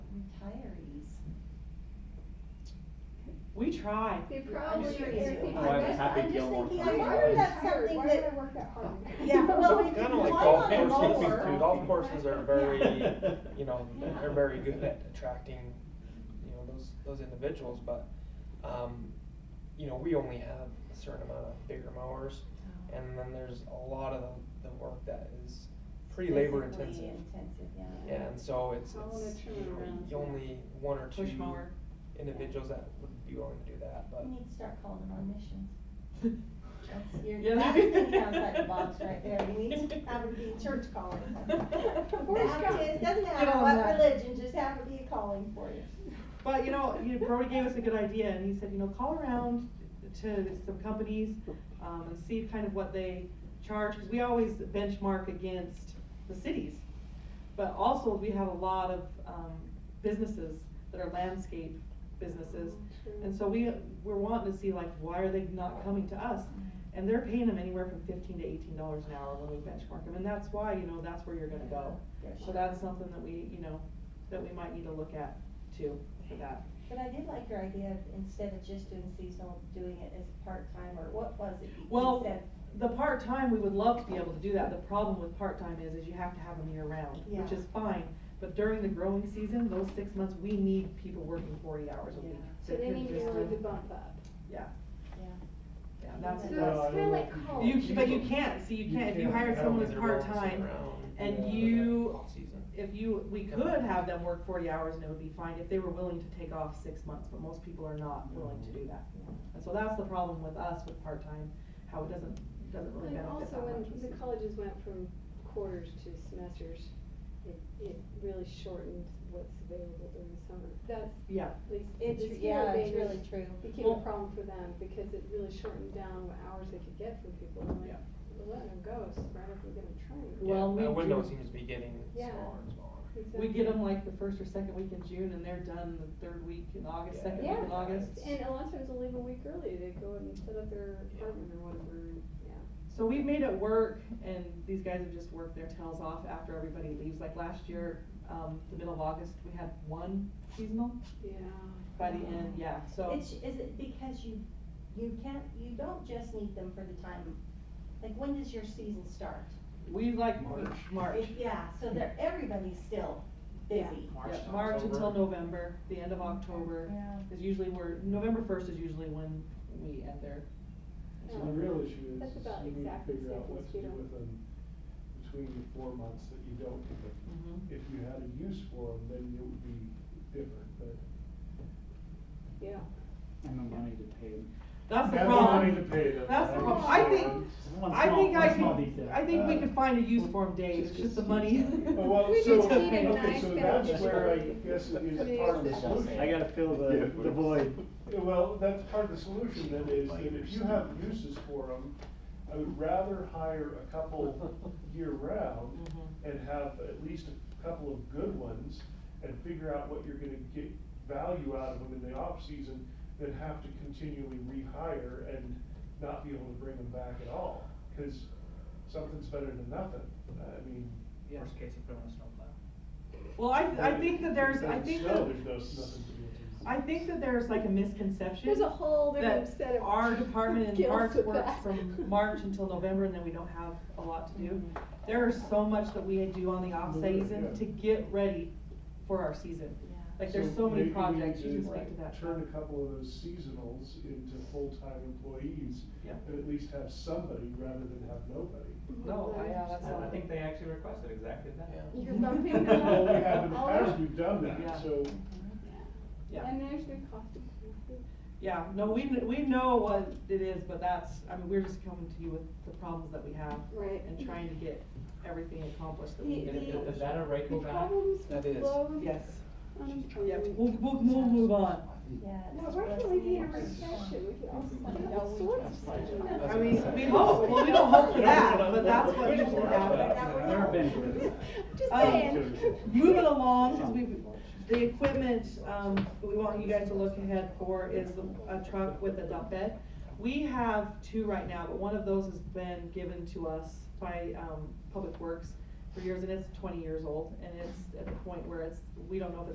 Clary's. We try. It probably, sure if you people, do. I I'm guess, Oh, happy I'm just Gilmore thinking, Girls. like, why Why would would I that's hard? something Why would that- I work that hard? Yeah, well, we Kind could of like climb golf on a courses, mower. golf courses are very, Yeah. you know, they're very good at attracting, you know, those, those individuals, but, um, you know, we only have a certain amount of bigger mowers, and then there's a lot of the, the work that is pretty labor Physically intensive. Intensive, yeah. Yeah, and so it's, I wanna it's, turn you know, around. you only one or two Push mower. individuals that would be willing to do that, but. We need to start calling them our missions. That's Yeah. your, that thing sounds like a box right there, you need to have it be church calling. Boy Baptist, doesn't Get matter on what that. religion, just have it be a calling for you. But you know, you Brody gave us a good idea, and he said, you know, call around to some companies, um, and see kind of what they charge, because we always benchmark against the cities. But also, we have a lot of, um, businesses that are landscape businesses, and so we, we're wanting to see like, why are they not coming to us? And they're paying them anywhere from fifteen to eighteen dollars an hour when we benchmark them, and that's why, you know, that's where you're gonna go. So that's something that we, you know, that we might need to look at too, for that. But I did like your idea of instead of just doing seasonal, doing it as part-time, or what was it? you Well, said? The part-time, we would love to be able to do that, the problem with part-time is, is you have to have them year-round, which Yeah. is fine. But during the growing season, those six months, we need people working forty hours a week. Yeah. So they That need to just- really good bump up. Yeah. Yeah. Yeah, that's, So No, I that's, kinda love like people. college. you, but you can't, see, you can't, if you hire I don't someone think as they're balancing part-time, around, and uh, you- off-season. if you, we could have them work forty hours and it would be fine if they were willing to take off six months, but most people are not willing to do that. And so that's the problem with us with part-time, how it doesn't, doesn't really And benefit also, that much. when the colleges went from quarters to semesters, it, it really shortened what's available during the summer. That's Yeah, at least. It's, the yeah, smaller it's majors really true. Became a Well- problem for them because it really shortened down what hours they could get from people. I'm like, Yeah. we're letting them go, so why don't we get them trained? Well, Yeah, we That window do- seems to be getting Yeah. smaller and smaller. We get Exactly. them like the first or second week in June and they're done the third week in August, Yeah. second week in Yeah. August. And a lot of times they'll leave a week early, they go and set up their Yeah. apartment or whatever, and, yeah. So we've made it work and these guys have just worked their tails off after everybody leaves. Like last year, um, the middle of August, we had one seasonal Yeah. by the end, yeah, so. It's, is it because you, you can't, you don't just need them for the time, like, when does your season start? We like March. March. It- Yeah, so they're, everybody's still busy. Yeah, March until November, the end of October Yeah. is usually where, November first is usually when we end there. So the real issue is, That's is about you need to exactly the figure out same what as to do here. with them between the four months that you don't get them. Mm-hmm. Mhm. If you had a use for them, then it would be different, but. Yeah. And the money to pay them. That's the Have problem. money to pay them. That's the right? problem. I think, One I small- think one I small could, detail. I think we Uh, could find a use for them, Dave, it's just the money. Well, Oh, Well, We so, just need a okay, nice so balance. that's where I guess it I mean, is part of the it's- solution. I gotta fill Yeah. the, the void. Yeah, Well, that's part of the solution then is that if you have uses for them, I would rather hire a couple year round Mhm. and have at least a couple of good ones and figure out what you're gonna get value out of them in the off season than have to continually rehire and not be able to bring them back at all. Cause something's better than nothing. I mean. Worst case, you put them on a snowplow. Well, I, I think that there's, I if it think that, doesn't snow, there's no- nothing to be able to- I think that there's like a misconception. There's a whole different that set of. our department in skills parks with works that. from March until November and then we don't have a lot to Mm-hmm. do. There is so much that we do on the off season Yeah. to get ready for our season. Yeah. Like there's so many maybe we need projects, you to can speak to that. Turn a couple of those seasonals into full-time employees. Yeah. And at least have somebody rather than have nobody. No, I, yeah, that's And I not, think they actually requested exactly that. Yeah. You're bumping them Well, we have in the all past, up. we've done Yeah. that, so. Yeah. Yeah. And there's the cost of. classes. yeah, no, we, kn- we know what it is, but that's, I mean, we're just coming to you with the problems that we have Right. and trying to get everything accomplished that The- we the- can the accomplish. Is that a rake back? problems That with is. low Yes, yeah, unemployment. we'll, we'll, we'll move on. Yeah. Now, it's where can we be in a depressing. recession? We could also do Yeah, all we sorts of just- stuff. I mean, we hope, well, we don't hope for that, but that's what needs to happen. There have been, Just Um, saying. Moving along, 'cause we've, the equipment, um, that we want you guys to look ahead for is a truck with a dump bed. We have two right now, but one of those has been given to us by, um, Public Works for years, and it's twenty years old, and it's at the point where it's, we don't know if it's